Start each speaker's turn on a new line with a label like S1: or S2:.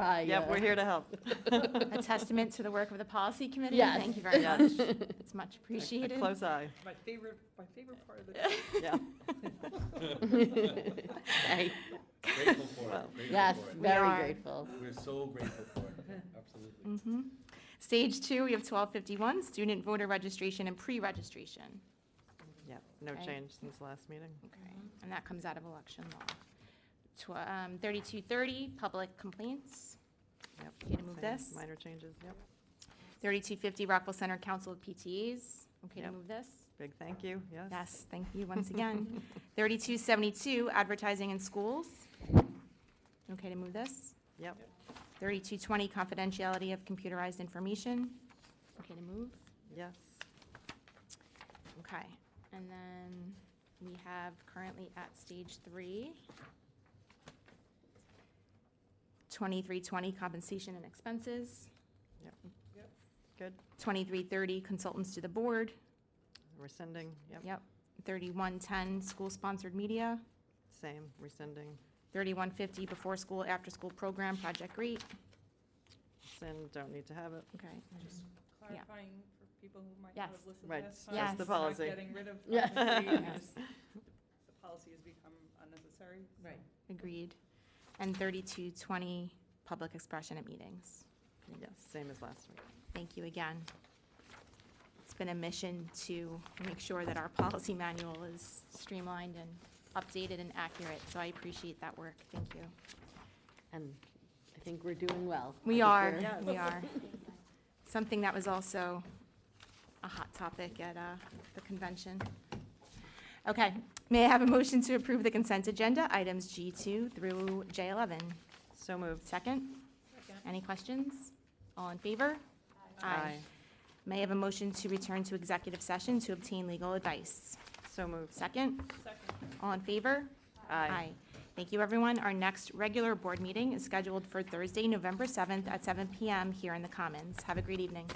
S1: by.
S2: Yep,
S1: uh,
S2: we're here to help.
S3: A testament to the work of the policy committee.
S1: Yes.
S3: Thank you very much.
S1: Yes.
S3: It's much
S2: A
S3: appreciated.
S2: close eye,
S4: My favorite, my favorite part of the.
S2: yeah.
S1: Right.
S5: Grateful for
S2: Well,
S5: it, grateful
S1: Yes,
S5: for it.
S1: very
S3: are.
S1: grateful.
S5: We're so grateful for it, absolutely.
S3: Mhm. Stage two, we have 1251, student voter registration and pre-registration.
S2: Yeah, no
S3: Okay.
S2: change since last meeting.
S3: Okay,
S2: Mm-hmm.
S3: and that comes out of election law. Tw- um, 3230, public complaints.
S2: Yep.
S3: You gonna move
S2: same,
S3: this?
S2: Minor changes, yep.
S3: 3250, Rockville Center Council of PTAs. Okay to
S2: Yep.
S3: move this?
S2: Big thank you, yes.
S3: Yes, thank you once again. 3272, advertising in schools. Okay to move this?
S2: Yep,
S3: 3220, confidentiality of computerized information. Okay to move?
S2: yes.
S3: Okay, and then we have currently at stage three. Twenty-three twenty compensation and expenses,
S2: Good,
S3: twenty-three thirty consultants to the board,
S2: rescinding, yep,
S3: yep, thirty-one ten school-sponsored media,
S2: same, rescinding.
S3: thirty-one fifty before school, after-school program, Project Great,
S2: Rescind, don't need to have it.
S3: okay.
S4: Just clarifying for people who might not have
S3: Yes.
S4: listened
S2: Right,
S4: last
S2: that's
S4: time.
S3: the
S4: we're not
S2: policy.
S4: Getting rid of.
S1: Yeah.
S4: Article three,
S3: Yes.
S4: because The policy has become unnecessary.
S1: Right.
S3: Agreed, and thirty-two twenty public expression at meetings.
S2: Yes, same as last week.
S3: Thank you again. It's been a mission to make sure that our policy manual is streamlined and updated and accurate, so I appreciate that work. Thank you.
S1: And I think we're doing well. I
S3: We
S1: think
S3: are,
S1: we're-
S2: Yes.
S3: we are. Something that was also a hot topic at uh, the convention. Okay, may I have a motion to approve the consent agenda, items G2 through J11?
S2: So moved.
S3: Second? Any questions? All in favor? May I have a motion to return to executive session to obtain legal advice?
S2: So moved.
S3: Second,
S4: Second,
S3: all in favor? Thank you, everyone. Our next regular board meeting is scheduled for Thursday, November 7th at 7 PM here in the Commons. Have a great evening.